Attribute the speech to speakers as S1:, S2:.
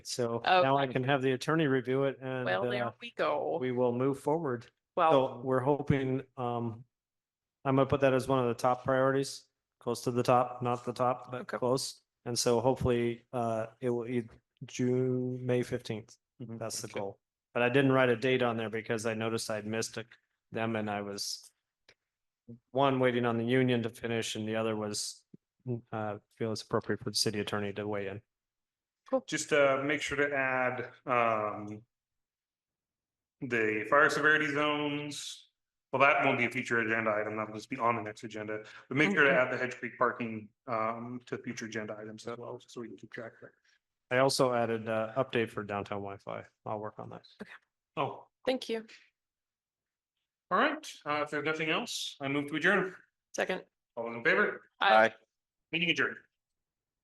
S1: So now I
S2: Oh, Okay.
S1: can have the attorney review it and
S2: Well, Oh.
S1: uh,
S2: there we go.
S1: we will move forward. So
S2: Well,
S1: we're hoping, um, I'm gonna put that as one of the top priorities, close to the top, not the top, but
S2: Okay.
S1: close. And so hopefully, uh, it will, e- June, May fifteenth,
S2: Mm-hmm.
S1: that's the goal. But I didn't write a date on there because I noticed I'd missed it- them and I was one, waiting on the union to finish and the other was, uh, feel it's appropriate for the city attorney to weigh in.
S3: Just uh, make sure to add um. The fire severity zones. Well, that won't be a future agenda item. That'll just be on the next agenda, but make sure to
S2: Okay.
S3: add the Hedge Creek parking um to future agenda items as well, so we can keep track of it.
S1: I also added, uh, update for downtown Wi-Fi. I'll work on that.
S3: Oh,
S2: thank you.
S3: all right. Uh, if there's nothing else, I move to adjourn.
S2: Second.
S3: All those in favor?
S2: Aye.
S3: Meeting adjourned.